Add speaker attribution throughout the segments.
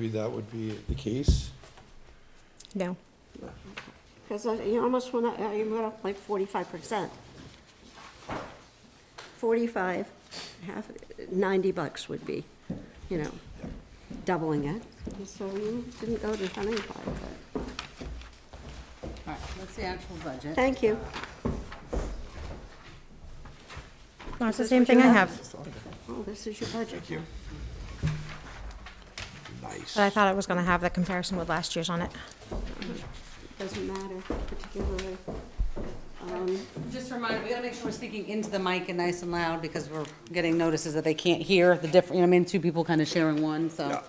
Speaker 1: Maybe that would be the case.
Speaker 2: No.
Speaker 3: Because you almost went up, uh, you went up like forty-five percent. Forty-five, half, ninety bucks would be, you know, doubling it. And So you didn't go to seventy-five, but,
Speaker 4: All right, what's the actual budget?
Speaker 3: thank you.
Speaker 2: No, it's the same thing I have,
Speaker 3: Oh, this is your budget. Thank you.
Speaker 1: Nice.
Speaker 2: but I thought I was gonna have the comparison with last year's on it.
Speaker 3: Doesn't matter particularly. Um,
Speaker 4: Just a reminder, we gotta make sure we're speaking into the mic and nice and loud, because we're getting notices that they can't hear the different, you know, what I mean, two people kind of sharing one, so.
Speaker 1: Yeah.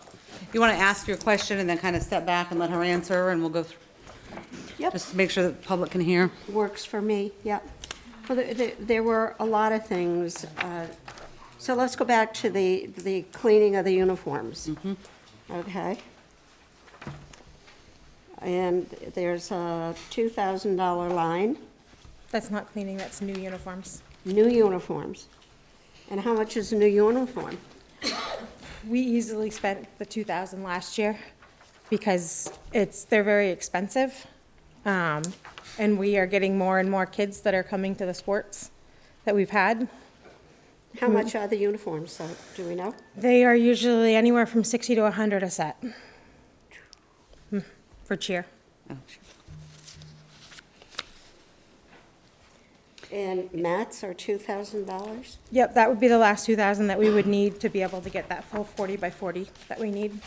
Speaker 4: You wanna ask your question and then kind of step back and let her answer, and we'll go, through
Speaker 3: Yep.
Speaker 4: just to make sure that the public can hear.
Speaker 3: works for me, yep. Well, there- there, there were a lot of things. uh, So let's go back to the, the cleaning of the uniforms. Okay? And there's a two thousand dollar line,
Speaker 2: That's not cleaning, that's new uniforms.
Speaker 3: new uniforms. And how much is a new uniform?
Speaker 2: We easily spent the two thousand last year because it's, they're very expensive. Um, and we are getting more and more kids that are coming to the sports that we've had.
Speaker 3: How much are the uniforms, so, do we know?
Speaker 2: They are usually anywhere from sixty to hundred a set. Hmm, For cheer.
Speaker 4: Oh, sure.
Speaker 3: And mats are two thousand dollars?
Speaker 2: Yep, that would be the last two thousand that we would need to be able to get that full forty by forty that we need.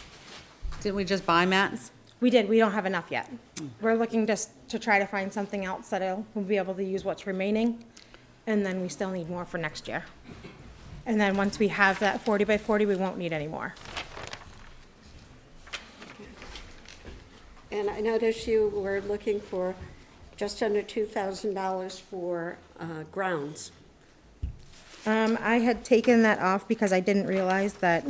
Speaker 4: Didn't we just buy mats?
Speaker 2: We did, we don't have enough yet. We're looking just to try to find something else that'll, we'll be able to use what's remaining, and then we still need more for next year. And then once we have that forty by forty, we won't need any more.
Speaker 3: And I noticed you were looking for just under two thousand dollars for uh, grounds.
Speaker 2: Um, I had taken that off because I didn't realize that.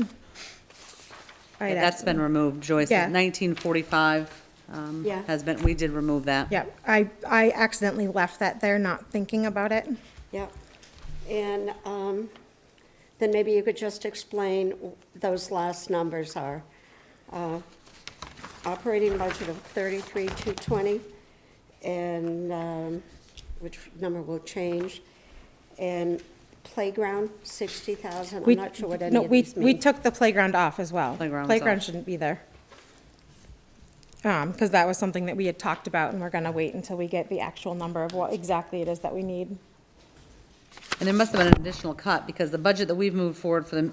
Speaker 2: I'd
Speaker 4: That's
Speaker 2: actually-
Speaker 4: been removed, Joyce,
Speaker 2: Yeah.
Speaker 4: nineteen forty-five, um,
Speaker 3: Yeah.
Speaker 4: has been, we did remove that.
Speaker 2: Yep, I, I accidentally left that there, not thinking about it.
Speaker 3: Yep. And um, then maybe you could just explain w- those last numbers are. uh, Operating budget of thirty-three, two twenty, and, um, which number will change, and playground, sixty thousand, I'm
Speaker 2: We-
Speaker 3: not sure what any
Speaker 2: no,
Speaker 3: of
Speaker 2: we-
Speaker 3: these
Speaker 2: We
Speaker 3: mean.
Speaker 2: took the playground off as well.
Speaker 4: Playground's
Speaker 2: Playground
Speaker 4: off.
Speaker 2: shouldn't be there. Um, because that was something that we had talked about, and we're gonna wait until we get the actual number of what exactly it is that we need.
Speaker 4: And there must have been an additional cut, because the budget that we've moved forward for the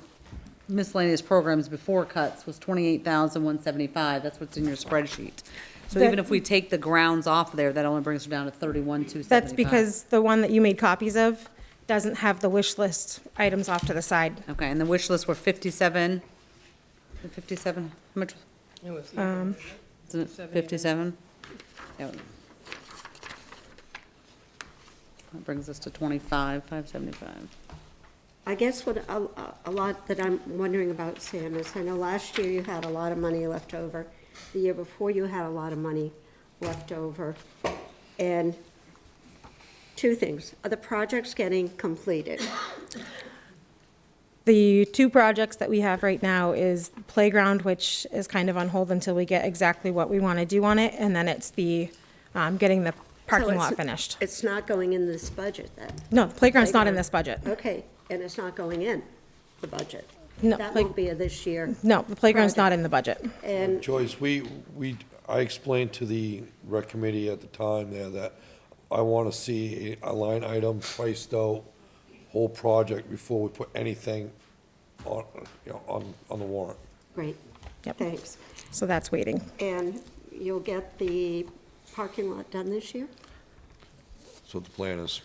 Speaker 4: miscellaneous programs before cuts was twenty-eight thousand, one seventy-five, that's what's in your spreadsheet. So even if we take the grounds off there, that only brings us down to thirty-one, two seventy-five.
Speaker 2: That's because the one that you made copies of doesn't have the wish list items off to the side.
Speaker 4: Okay, and the wish list were fifty-seven, fifty-seven, how much?
Speaker 2: Um,
Speaker 4: Isn't it fifty-seven? That brings us to twenty-five, five seventy-five.
Speaker 3: I guess what, a, a- a lot that I'm wondering about, Sam, is I know last year you had a lot of money left over. The year before you had a lot of money left over. And two things, are the projects getting completed?
Speaker 2: The two projects that we have right now is playground, which is kind of on hold until we get exactly what we wanna do on it, and then it's the, um, getting the
Speaker 3: So
Speaker 2: parking
Speaker 3: it's-
Speaker 2: lot finished.
Speaker 3: It's not going in this budget then?
Speaker 2: No, the playground's not in this budget.
Speaker 3: Okay, and it's not going in the budget?
Speaker 2: No,
Speaker 3: That
Speaker 2: like-
Speaker 3: won't be a this year.
Speaker 2: No, the playground's not
Speaker 3: Project.
Speaker 2: in the budget.
Speaker 3: And,
Speaker 1: Joyce, we, we, I explained to the rec committee at the time there that I want to see a a line item priced out, whole project before we put anything on, you know, on, on the warrant.
Speaker 3: great,
Speaker 2: Yep.
Speaker 3: thanks.
Speaker 2: So that's waiting.
Speaker 3: And you'll get the parking lot done this year?
Speaker 1: That's what the plan is.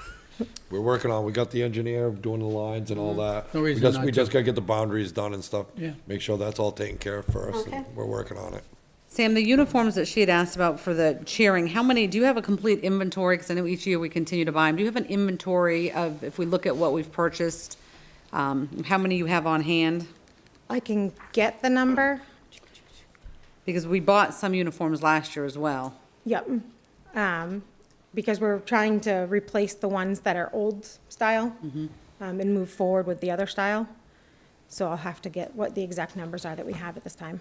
Speaker 1: We're working on, we got the engineer doing the lines and all that.
Speaker 5: No
Speaker 1: We
Speaker 5: reason
Speaker 1: just-
Speaker 5: not
Speaker 1: We
Speaker 5: to.
Speaker 1: just gotta get the boundaries done and stuff.
Speaker 5: Yeah.
Speaker 1: Make sure that's all taken care of first, and
Speaker 3: Okay.
Speaker 1: we're working on it.
Speaker 4: Sam, the uniforms that she had asked about for the cheering, how many, do you have a complete inventory? Because I know each year we continue to buy them. Do you have an inventory of, if we look at what we've purchased, um, how many you have on hand?
Speaker 2: I can get the number.
Speaker 4: Because we bought some uniforms last year as well.
Speaker 2: Yep. Um, because we're trying to replace the ones that are old style um, and move forward with the other style. So I'll have to get what the exact numbers are that we have at this time.